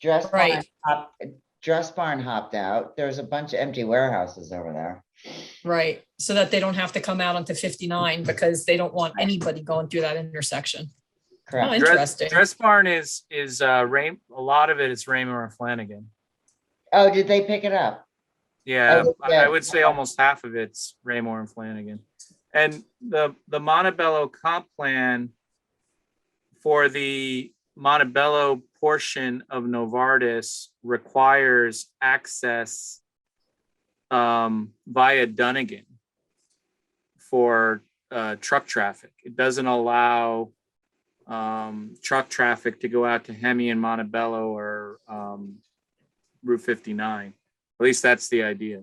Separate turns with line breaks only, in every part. Dress barn,
Right.
hop- dress barn hopped out. There's a bunch of empty warehouses over there.
Right, so that they don't have to come out onto fifty-nine because they don't want anybody going through that intersection. Oh,
Correct.
Dress,
interesting.
Dress Barn is, is, uh, Ray, a lot of it is Raymer and Flanagan.
Oh, did they pick it up?
Yeah,
Oh,
I
yeah.
I would say almost half of it's Raymore and Flanagan. And the, the Montebello comp plan for the Montebello portion of Novartis requires access um, via Dunnigan for uh, truck traffic. It doesn't allow um, truck traffic to go out to Hemi and Montebello or um, Route 59. At least that's the idea.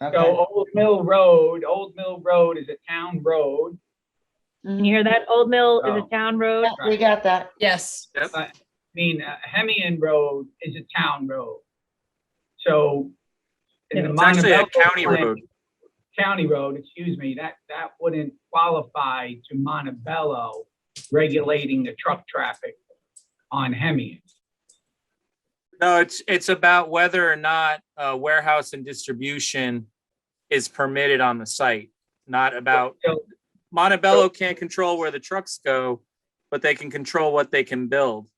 Okay.
So oh, Old Mill Road, Old Mill Road is a town road.
Can you hear that? Old Mill is
Oh.
a town road.
Yeah, We got that.
Yes,
Yep.
I mean, uh, Hemian Road is a town road. So. in the
It's actually a
Montebello
county
plan-
road.
County road, excuse me, that, that wouldn't qualify to Montebello regulating the truck traffic on Hemian.
No, it's, it's about whether or not uh, warehouse and distribution is permitted on the site, not about,
So,
Montebello can't control where the trucks go, but they can control what they can build.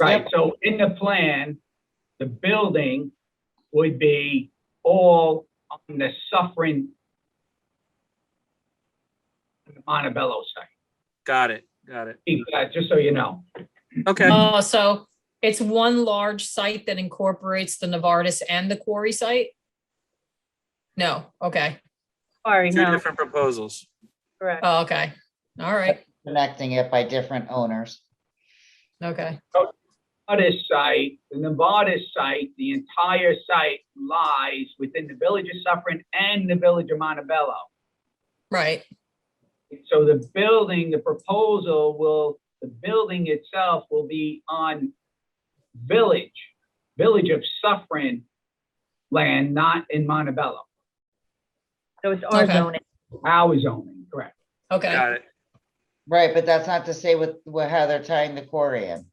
right, so in the plan, the building would be all on the Suffering Montebello site.
Got it, got it.
Keep that, just so you know.
Okay,
oh, so it's one large site that incorporates the Novartis and the quarry site? No, okay,
Sorry,
two
no,
different proposals.
correct.
oh, okay, all right,
Connecting it by different owners.
okay,
Novartis site, the Novartis site, the entire site lies within the village of Suffering and the village of Montebello.
right,
So the building, the proposal will, the building itself will be on village, village of Suffering land, not in Montebello.
So it's our
Okay.
zoning.
Our zoning, correct.
okay,
Got it.
Right, but that's not to say with, with how they're tying the quarry in.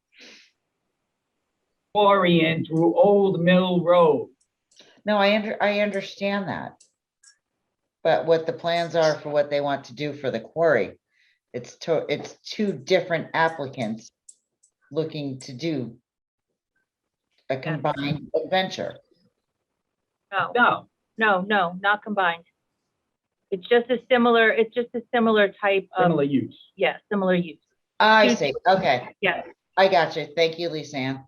Quarry in through Old Mill Road.
No, I under, I understand that. But what the plans are for what they want to do for the quarry, it's to, it's two different applicants looking to do a combined adventure.
No,
No,
no, no, not combined. It's just a similar, it's just a similar type of,
similar use.
yeah, similar use.
I
Two-
see, okay,
Yeah,
I got you, thank you, Lisa Ann.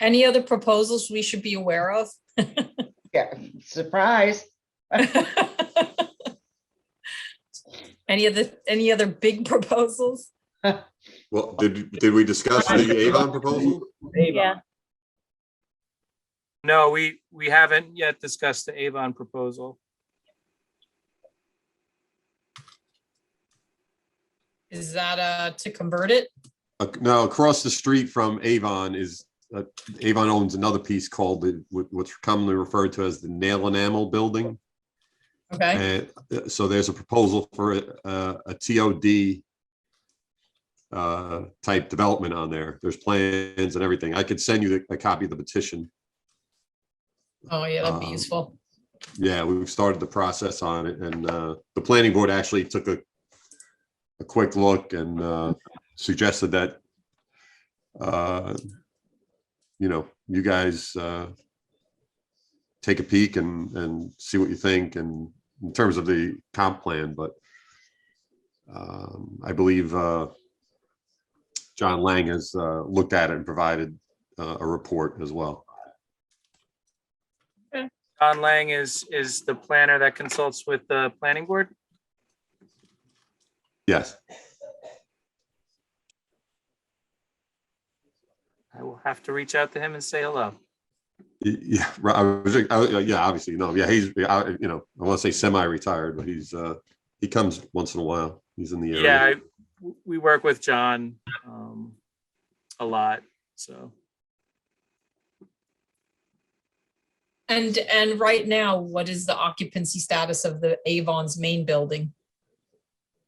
any other proposals we should be aware of?
Yeah, surprise,
Any other, any other big proposals?
Well, did, did we discuss the Avon proposal?
Avon.
yeah.
No, we, we haven't yet discussed the Avon proposal.
Is that, uh, to convert it?
Uh, No, across the street from Avon is, uh, Avon owns another piece called the, what- what's commonly referred to as the nail enamel building.
Okay,
And uh, so there's a proposal for a, a TOD uh, type development on there. There's plans and everything. I could send you the- a copy of the petition.
oh, yeah, that'd be
um,
useful.
Yeah, we've started the process on it and uh, the planning board actually took a, a quick look and uh, suggested that, uh, you know, you guys uh, take a peek and, and see what you think and in terms of the comp plan, but um, I believe uh, John Lang has uh, looked at it and provided uh, a report as well.
Don Lang is, is the planner that consults with the planning board?
Yes.
I will have to reach out to him and say hello.
Y- Yeah, right, I was, I was- yeah, obviously, no, yeah, he's, I- you know, I want to say semi-retired, but he's, uh, he comes once in a while. He's in the area.
Yeah, I- w- we work with John um, a lot, so.
And, and right now, what is the occupancy status of the Avon's main building?